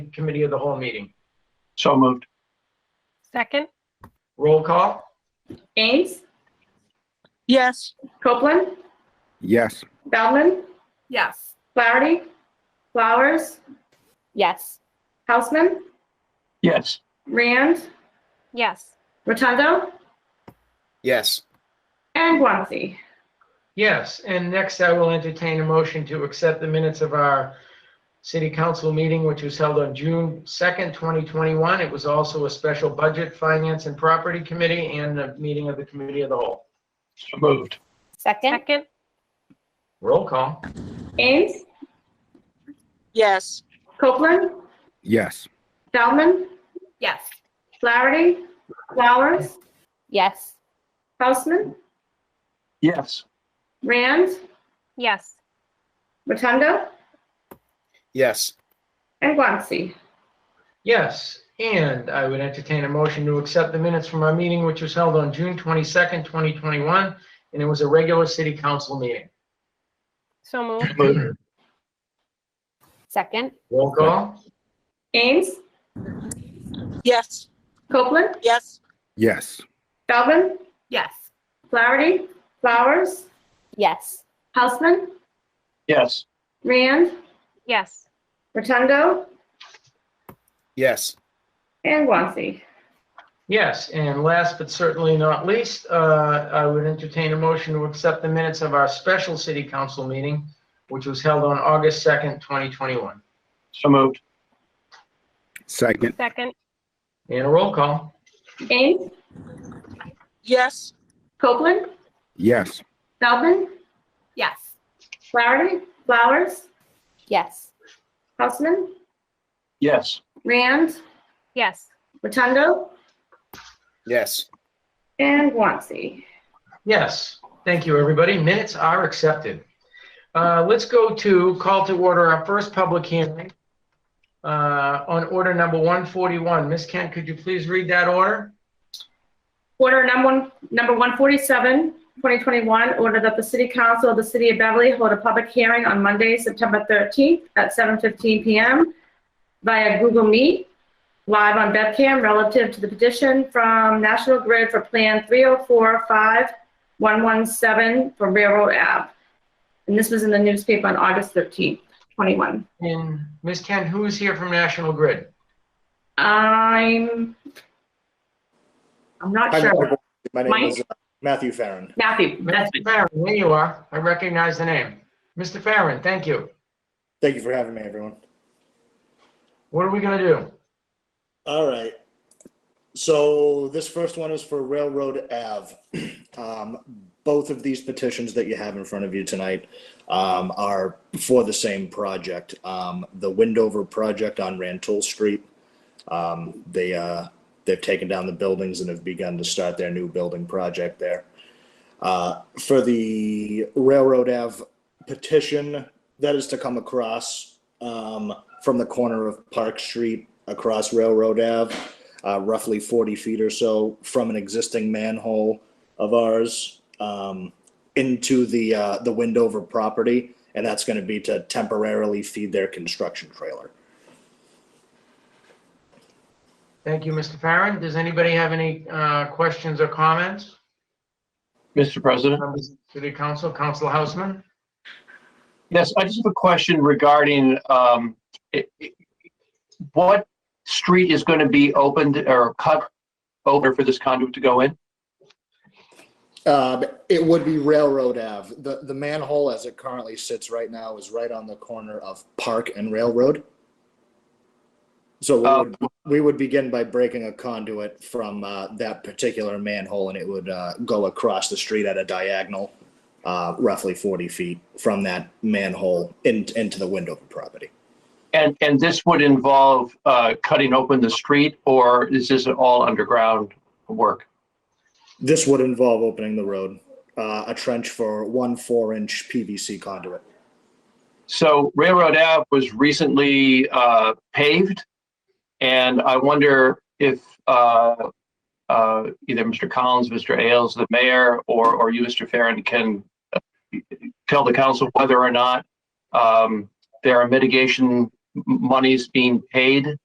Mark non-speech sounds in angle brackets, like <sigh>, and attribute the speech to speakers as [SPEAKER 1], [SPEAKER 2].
[SPEAKER 1] committee of the whole meeting.
[SPEAKER 2] So moved.
[SPEAKER 3] Second?
[SPEAKER 1] Roll call?
[SPEAKER 4] Ames,
[SPEAKER 3] Yes.
[SPEAKER 4] Copeland,
[SPEAKER 5] yes,
[SPEAKER 4] Feldman,
[SPEAKER 3] Yes.
[SPEAKER 4] Flaherty, Flowers,
[SPEAKER 6] Yes.
[SPEAKER 4] Hausman,
[SPEAKER 2] Yes.
[SPEAKER 4] Rand,
[SPEAKER 3] Yes.
[SPEAKER 4] Rotundo,
[SPEAKER 7] yes,
[SPEAKER 4] and Guanxi.
[SPEAKER 1] Yes, and next I will entertain a motion to accept the minutes of our city council meeting, which was held on June 2nd, 2021. It was also a special budget, finance, and property committee, and a meeting of the committee of the whole.
[SPEAKER 2] So moved.
[SPEAKER 6] Second?
[SPEAKER 3] Second?
[SPEAKER 1] Roll call?
[SPEAKER 4] Ames,
[SPEAKER 3] Yes.
[SPEAKER 4] Copeland,
[SPEAKER 5] yes,
[SPEAKER 4] Feldman,
[SPEAKER 3] Yes.
[SPEAKER 4] Flaherty, Flowers,
[SPEAKER 6] Yes.
[SPEAKER 4] Hausman,
[SPEAKER 2] Yes.
[SPEAKER 4] Rand,
[SPEAKER 3] Yes.
[SPEAKER 4] Rotundo,
[SPEAKER 7] yes,
[SPEAKER 4] and Guanxi.
[SPEAKER 1] Yes, and I would entertain a motion to accept the minutes from our meeting, which was held on June 22nd, 2021, and it was a regular city council meeting.
[SPEAKER 3] So moved.
[SPEAKER 2] Moved.
[SPEAKER 6] Second?
[SPEAKER 1] Roll call?
[SPEAKER 4] Ames,
[SPEAKER 3] Yes.
[SPEAKER 4] Copeland,
[SPEAKER 3] Yes.
[SPEAKER 5] yes,
[SPEAKER 4] Feldman,
[SPEAKER 3] Yes.
[SPEAKER 4] Flaherty, Flowers,
[SPEAKER 6] Yes.
[SPEAKER 4] Hausman,
[SPEAKER 2] Yes.
[SPEAKER 4] Rand,
[SPEAKER 3] Yes.
[SPEAKER 4] Rotundo,
[SPEAKER 7] yes,
[SPEAKER 4] and Guanxi.
[SPEAKER 1] Yes, and last but certainly not least, uh, I would entertain a motion to accept the minutes of our special city council meeting, which was held on August 2nd, 2021.
[SPEAKER 2] So moved.
[SPEAKER 5] second,
[SPEAKER 3] Second?
[SPEAKER 1] And a roll call?
[SPEAKER 4] Ames,
[SPEAKER 3] Yes.
[SPEAKER 4] Copeland,
[SPEAKER 5] yes,
[SPEAKER 4] Feldman,
[SPEAKER 3] Yes.
[SPEAKER 4] Flaherty, Flowers,
[SPEAKER 6] Yes.
[SPEAKER 4] Hausman,
[SPEAKER 2] Yes.
[SPEAKER 4] Rand,
[SPEAKER 3] Yes.
[SPEAKER 4] Rotundo,
[SPEAKER 7] yes.
[SPEAKER 4] and Guanxi.
[SPEAKER 1] Yes, thank you, everybody. Minutes are accepted. Uh, Let's go to call to order our first public hearing uh, on order number 141. Ms. Kent, could you please read that order?
[SPEAKER 4] Order number one- number 147, 2021, order that the City Council of the City of Beverly hold a public hearing on Monday, September 13th at 7:15 PM via Google Meet, live on Bevcam relative to the petition from National Grid for Plan 3045117 for Railroad Ave. And this was in the newspaper on August 13th, 21.
[SPEAKER 1] And Ms. Kent, who is here from National Grid?
[SPEAKER 4] I'm, I'm not
[SPEAKER 8] Hi,
[SPEAKER 4] sure.
[SPEAKER 8] Mr. Board. My name
[SPEAKER 4] Mike?
[SPEAKER 8] is uh, Matthew Farren.
[SPEAKER 4] Matthew, that's
[SPEAKER 1] Mr. Farren, there you are. I recognize the name. Mr. Farren, thank you.
[SPEAKER 8] Thank you for having me, everyone.
[SPEAKER 1] What are we going to do?
[SPEAKER 8] All right. So this first one is for Railroad Ave. <clears throat> Um, Both of these petitions that you have in front of you tonight um, are for the same project, um, the Windover project on Rantoul Street. Um, They, uh, they've taken down the buildings and have begun to start their new building project there. Uh, For the Railroad Ave petition, that is to come across um, from the corner of Park Street across Railroad Ave, uh, roughly 40 feet or so from an existing manhole of ours um, into the uh, the Windover property, and that's going to be to temporarily feed their construction trailer.
[SPEAKER 1] Thank you, Mr. Farren. Does anybody have any uh, questions or comments?
[SPEAKER 2] Mr. President?
[SPEAKER 1] Members of the City Council, Council Houseman?
[SPEAKER 2] Yes, I just have a question regarding, um, i- i- what street is going to be opened or cut over for this conduit to go in?
[SPEAKER 8] Uh, it would be Railroad Ave. The the manhole as it currently sits right now is right on the corner of Park and Railroad. So we would
[SPEAKER 2] Um,
[SPEAKER 8] we would begin by breaking a conduit from uh, that particular manhole and it would uh, go across the street at a diagonal uh, roughly 40 feet from that manhole in, into the window property
[SPEAKER 2] And, and this would involve, uh, cutting open the street or is this all underground work?
[SPEAKER 8] this would involve opening the road uh, a trench for one four inch pvc conduit
[SPEAKER 2] So Railroad Ave was recently uh, paved, and I wonder if uh, uh, either Mr. Collins, Mr. Ailes, the mayor, or, or you, Mr. Farren, can uh, tell the council whether or not um, there are mitigation m- monies being paid